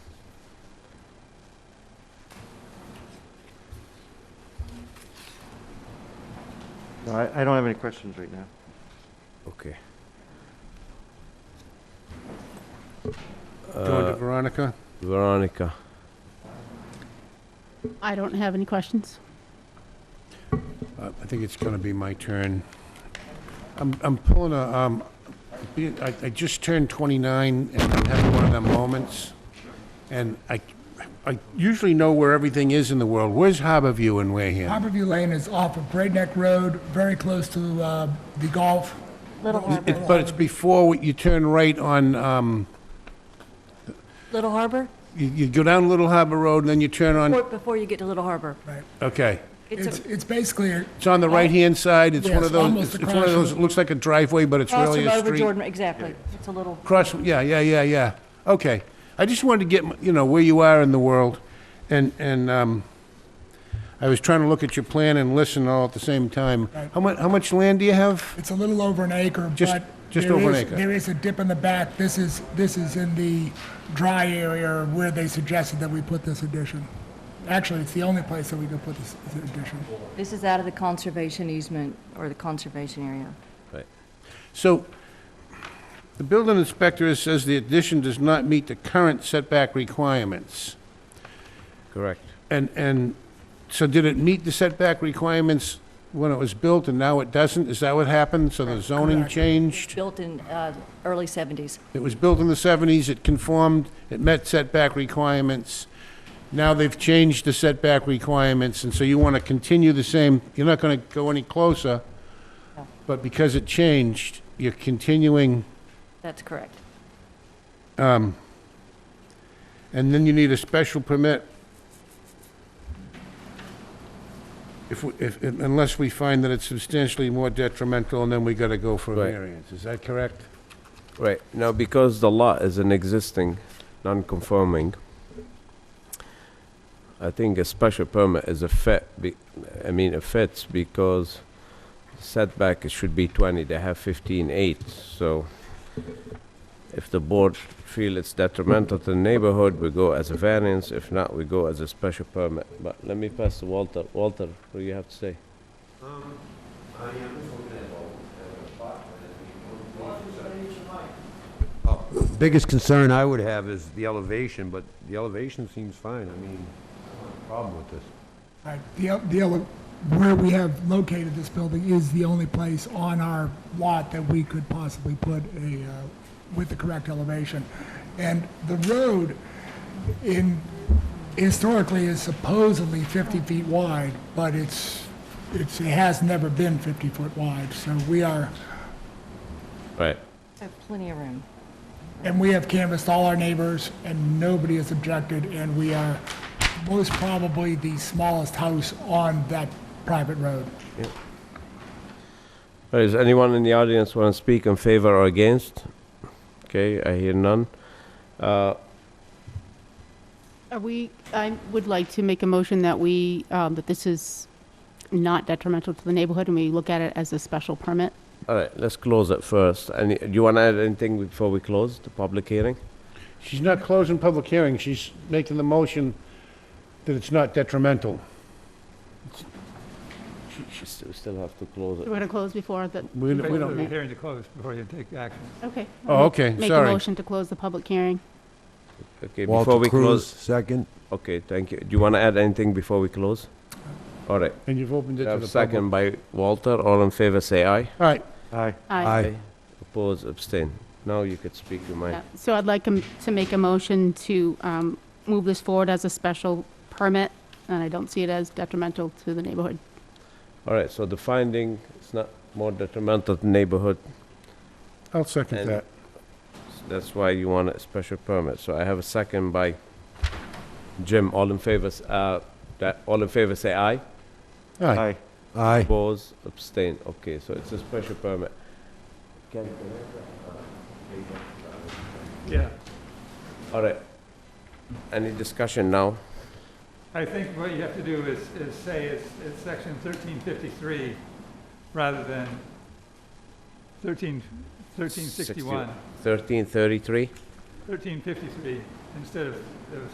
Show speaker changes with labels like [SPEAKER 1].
[SPEAKER 1] No, I, I don't have any questions right now.
[SPEAKER 2] Okay.
[SPEAKER 3] Going
[SPEAKER 2] Uh,
[SPEAKER 3] to Veronica?
[SPEAKER 2] Veronica,
[SPEAKER 4] I don't have any questions.
[SPEAKER 3] Uh, I think it's going to be my turn. I'm, I'm pulling a, um, be- I, I just turned 29 and I'm having one of them moments. And I, I usually know where everything is in the world. Where's Harborview in Wareham?
[SPEAKER 5] Harborview Lane is off of Great Neck Road, very close to uh, the golf.
[SPEAKER 6] Little Harbor.
[SPEAKER 3] It- But it's before you turn right on, um,
[SPEAKER 6] Little Harbor?
[SPEAKER 3] you, you go down Little Harbor Road and then you turn on,
[SPEAKER 6] Before- Before you get to Little Harbor.
[SPEAKER 3] okay.
[SPEAKER 6] It's
[SPEAKER 5] It's,
[SPEAKER 6] a-
[SPEAKER 5] it's basically, a-
[SPEAKER 3] It's on the right-hand side. It's
[SPEAKER 5] Yeah,
[SPEAKER 3] one of
[SPEAKER 5] it's
[SPEAKER 3] those,
[SPEAKER 5] almost
[SPEAKER 3] it's it's
[SPEAKER 5] across
[SPEAKER 3] one of those,
[SPEAKER 5] the-
[SPEAKER 3] it looks like a driveway, but it's
[SPEAKER 6] Cross
[SPEAKER 3] really
[SPEAKER 6] the
[SPEAKER 3] a
[SPEAKER 6] road with
[SPEAKER 3] street.
[SPEAKER 6] Jordan, exactly. It's a little,
[SPEAKER 3] Cross, yeah, yeah, yeah, yeah. Okay. I just wanted to get, m- you know, where you are in the world. And, and, um, I was trying to look at your plan and listen all at the same time. How much, how much land do you have?
[SPEAKER 5] it's a little over an acre,
[SPEAKER 3] Just-
[SPEAKER 5] but.
[SPEAKER 3] just
[SPEAKER 5] there
[SPEAKER 3] over an
[SPEAKER 5] is-
[SPEAKER 3] acre.
[SPEAKER 5] There is a dip in the back. This is, this is in the dry area where they suggested that we put this addition. Actually, it's the only place that we could put this this addition.
[SPEAKER 6] this is out of the conservation easement or the conservation area.
[SPEAKER 3] So the building inspector says the addition does not meet the current setback requirements.
[SPEAKER 2] correct.
[SPEAKER 3] And, and so did it meet the setback requirements when it was built and now it doesn't? Is that what happened? So the zoning changed?
[SPEAKER 6] Built in uh, early 70s.
[SPEAKER 3] It was built in the 70s, it conformed, it met setback requirements. Now they've changed the setback requirements, and so you want to continue the same, you're not going to go any closer, but because it changed, you're continuing,
[SPEAKER 6] That's correct.
[SPEAKER 3] and then you need a special permit. If, we- if, unless we find that it's substantially more detrimental, and then we got to go for a
[SPEAKER 2] Right.
[SPEAKER 3] variance, is that correct?
[SPEAKER 2] Right, now because the lot is an existing, non-conforming, I think a special permit is a fit, be- I mean, it fits because setback, it should be 20, they have 15, 8, so if the board feel it's detrimental to the neighborhood, we go as a variance, if not, we go as a special permit. But let me pass to Walter. Walter, what do you have to say?
[SPEAKER 7] Biggest concern I would have is the elevation, but the elevation seems fine. I mean, problem with this.
[SPEAKER 5] Right, The, el- the, ele- where we have located this building is the only place on our lot that we could possibly put a, uh, with the correct elevation. And the road in, historically is supposedly 50 feet wide, but it's, it's, it has never been 50 foot wide. So we are,
[SPEAKER 2] Right.
[SPEAKER 6] So plenty of room.
[SPEAKER 5] and we have canvassed all our neighbors, and nobody has objected, and we are most probably the smallest house on that private road.
[SPEAKER 2] Does anyone in the audience want to speak in favor or against? Okay, I hear none. Uh,
[SPEAKER 4] Are we, I would like to make a motion that we, um, that this is not detrimental to the neighborhood and we look at it as a special permit.
[SPEAKER 2] All right, let's close it first. Any, do you want to add anything before we close the public hearing?
[SPEAKER 3] She's not closing public hearing, she's making the motion that it's not detrimental.
[SPEAKER 2] We st- we still have to close
[SPEAKER 4] We're
[SPEAKER 2] it.
[SPEAKER 4] going to close before the,
[SPEAKER 3] We don't- we don't,
[SPEAKER 4] Okay.
[SPEAKER 8] Hearing to close before you take action.
[SPEAKER 4] okay.
[SPEAKER 3] Oh, okay,
[SPEAKER 4] Make a
[SPEAKER 3] sorry.
[SPEAKER 4] motion to close the public hearing.
[SPEAKER 2] Okay, before
[SPEAKER 7] Walter
[SPEAKER 2] we
[SPEAKER 7] Cruz,
[SPEAKER 2] close,
[SPEAKER 7] second.
[SPEAKER 2] okay, thank you. Do you want to add anything before we close? All right,
[SPEAKER 3] and you've opened it
[SPEAKER 2] I
[SPEAKER 3] to the
[SPEAKER 2] have
[SPEAKER 3] public.
[SPEAKER 2] second by Walter. All in favor, say aye.
[SPEAKER 3] All right,
[SPEAKER 1] Aye.
[SPEAKER 4] Aye.
[SPEAKER 2] Oppose, abstain. Now you could speak your mind.
[SPEAKER 4] Yeah, So I'd like 'em to make a motion to um, move this forward as a special permit, and I don't see it as detrimental to the neighborhood.
[SPEAKER 2] All right, so the finding is not more detrimental to neighborhood.
[SPEAKER 3] I'll second
[SPEAKER 2] And-
[SPEAKER 3] that.
[SPEAKER 2] That's why you want a special permit. So I have a second by Jim. All in favor, s- uh, that, all in favor, say aye.
[SPEAKER 3] Aye.
[SPEAKER 1] Aye.
[SPEAKER 7] Aye.
[SPEAKER 2] Oppose, abstain. Okay, so it's a special permit.
[SPEAKER 8] Yeah.
[SPEAKER 2] All right. Any discussion now?
[SPEAKER 8] I think what you have to do is, is say it's, it's section thirteen fifty-three rather than thirteen, thirteen sixty-one,
[SPEAKER 2] Thirteen thirty-three?
[SPEAKER 8] thirteen fifty-three instead of, of